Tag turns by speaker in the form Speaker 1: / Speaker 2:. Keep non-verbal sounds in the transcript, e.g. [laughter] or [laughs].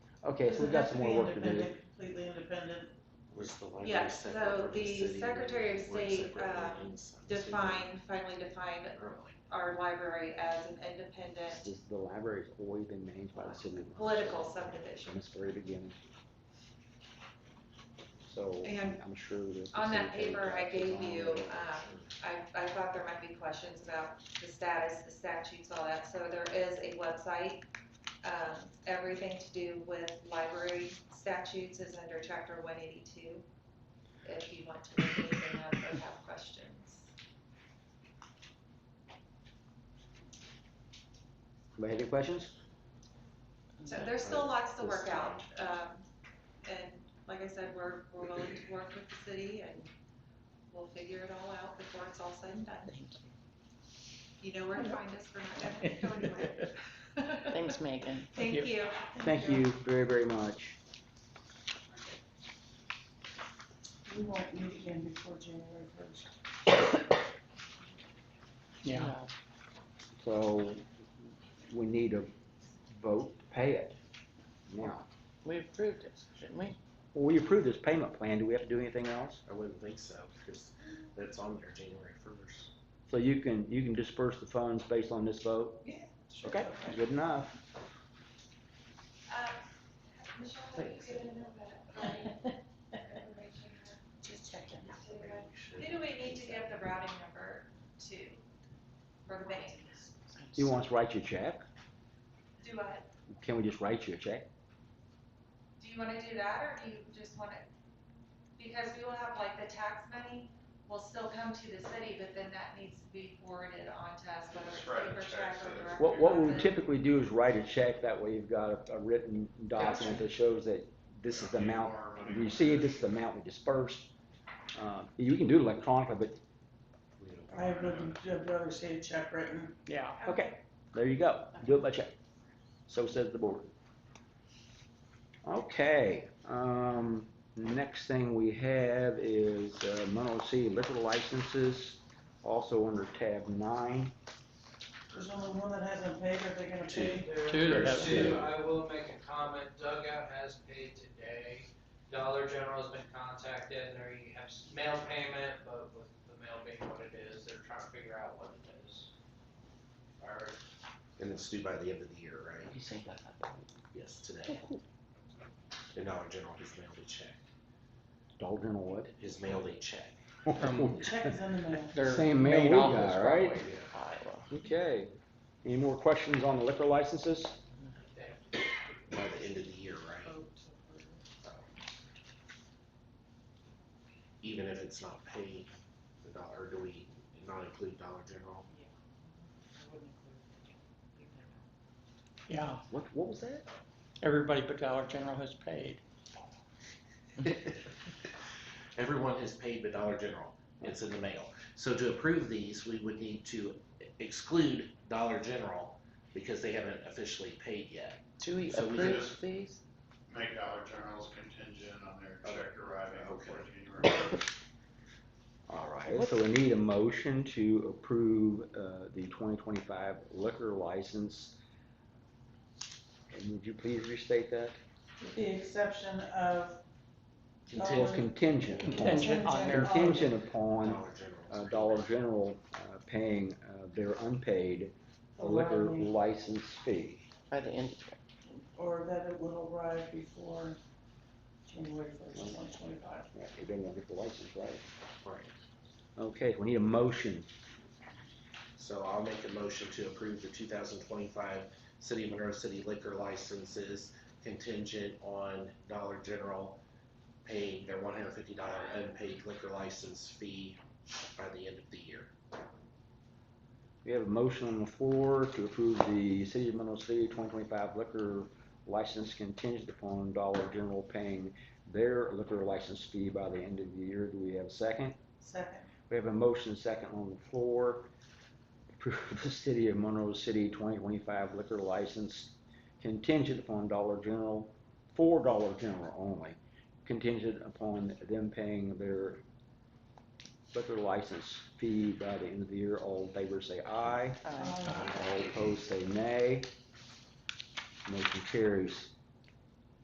Speaker 1: Okay, so we've got some more work to do.
Speaker 2: Completely independent,
Speaker 3: Was the library
Speaker 4: Yeah,
Speaker 3: separate
Speaker 4: so
Speaker 3: from the
Speaker 4: the
Speaker 3: city, or
Speaker 4: Secretary of
Speaker 3: were it
Speaker 4: State,
Speaker 3: separate
Speaker 4: um,
Speaker 3: meetings? I'm assuming
Speaker 4: defined, finally defined
Speaker 3: early.
Speaker 4: our library as an independent
Speaker 1: This- The library's always been managed by the city. of-
Speaker 4: political subdivision.
Speaker 1: From its very beginning. So
Speaker 4: And
Speaker 1: I'm sure that. the
Speaker 4: on that
Speaker 1: secretary
Speaker 4: paper I
Speaker 1: got his
Speaker 4: gave
Speaker 1: own
Speaker 4: you,
Speaker 1: little-
Speaker 4: uh, I, I thought there might be questions about the status, the statutes, all that, so there is a website. Um, everything to do with library statutes is under chapter one eighty-two, if you want to look anything up or have questions.
Speaker 1: Anybody have any questions?
Speaker 4: So there's still lots to work out, um, and like I said, we're, we're willing to work with the city and we'll figure it all out before it's all said and done. You know where to find us, we're not gonna go anywhere.
Speaker 5: Thanks, Megan.
Speaker 4: [laughs] Thank you.
Speaker 1: Thank you very, very much.
Speaker 2: we won't meet again before January first.
Speaker 5: Yeah.
Speaker 1: So we need a vote to pay it now.
Speaker 5: We approved it, didn't we?
Speaker 1: Well, we approved this payment plan. Do we have to do anything else?
Speaker 3: I wouldn't think so, because that's on there January first.
Speaker 1: So you can, you can disperse the funds based on this vote? Okay, good enough.
Speaker 6: Michelle, have you given them that information?
Speaker 2: Just checking.
Speaker 4: Who do we need to give the routing number to for the bank?
Speaker 1: You want us to write you a check?
Speaker 4: Do I,
Speaker 1: Can we just write you a check?
Speaker 4: do you wanna do that or do you just wanna? Because we will have like the tax money will still come to the city, but then that needs to be forwarded on to us, whether it's
Speaker 7: Just write a
Speaker 4: paper
Speaker 7: check,
Speaker 4: check
Speaker 7: so
Speaker 4: or
Speaker 7: it's-
Speaker 4: direct
Speaker 1: What, what we
Speaker 4: deposit.
Speaker 1: typically do is write a check, that way you've got a, a written document that shows that this is the amount we received, this is the amount we dispersed. Uh, you can do it electronically, but
Speaker 2: I have nothing, I'd rather see a check written.
Speaker 5: Yeah.
Speaker 1: Okay, there you go. Do it by check. So says the board. Okay, um, next thing we have is uh, Monroe City liquor licenses, also under tab nine.
Speaker 2: There's only one that hasn't paid, are they gonna pay?
Speaker 5: Two that
Speaker 7: There's
Speaker 5: have-
Speaker 7: two, I will make a comment, Dugout has paid today, Dollar General's been contacted, there you have s- mail payment, but with the mail being what it is, they're trying to figure out what it is. Or,
Speaker 3: And it's due by the end of the year, right?
Speaker 5: You say that.
Speaker 3: Yes, today. And Dollar General has mailed a check,
Speaker 1: Dalton Wood.
Speaker 3: has mailed a check.
Speaker 5: Um,
Speaker 2: Check is in the [laughs] mail.
Speaker 5: Their
Speaker 1: Same mail
Speaker 5: main
Speaker 1: we
Speaker 5: office
Speaker 1: got, right?
Speaker 5: probably in
Speaker 1: [laughs]
Speaker 5: Iowa.
Speaker 1: Okay, any more questions on the liquor licenses?
Speaker 7: they-
Speaker 3: By the end of the year, right? Even if it's not paid, the dollar, do we not include Dollar General?
Speaker 5: Yeah,
Speaker 1: What, what was that?
Speaker 5: everybody but Dollar General has paid.
Speaker 3: [laughs] Everyone has paid the Dollar General. It's in the mail. So to approve these, we would need to exclude Dollar General because they haven't officially paid yet.
Speaker 5: Do we
Speaker 3: So we
Speaker 5: approve
Speaker 7: just-
Speaker 5: these?
Speaker 7: Make Dollar General's contingent on their check arriving before
Speaker 3: Okay.
Speaker 7: January first.
Speaker 1: All right, so we need a motion to approve, uh, the twenty twenty-five liquor license. And would you please restate that?
Speaker 2: With the exception of
Speaker 1: Or contingent
Speaker 3: Contingent
Speaker 1: upon,
Speaker 5: Contingent on their.
Speaker 1: contingent upon,
Speaker 3: Dollar
Speaker 1: uh,
Speaker 3: General.
Speaker 1: Dollar General, uh, paying, uh, their unpaid liquor
Speaker 2: arriving,
Speaker 1: license fee.
Speaker 5: By the end of
Speaker 2: or that it will arrive before January first, twenty twenty-five.
Speaker 1: Yeah, If they won't get the license, right?
Speaker 3: Right.
Speaker 1: Okay, we need a motion,
Speaker 3: So I'll make a motion to approve the two thousand twenty-five City of Monroe City liquor licenses contingent on Dollar General paying their one hundred fifty dollar unpaid liquor license fee by the end of the year.
Speaker 1: we have a motion on the floor to approve the City of Monroe City twenty twenty-five liquor license contingent upon Dollar General paying their liquor license fee by the end of the year. Do we have a second?
Speaker 2: Second.
Speaker 1: We have a motion second on the floor. Approve the city of Monroe City twenty twenty-five liquor license contingent upon Dollar General, for Dollar General only, contingent upon them paying their liquor license fee by the end of the year. All in favor say aye.
Speaker 5: the, uh,
Speaker 1: All opposed say nay. Motion carries.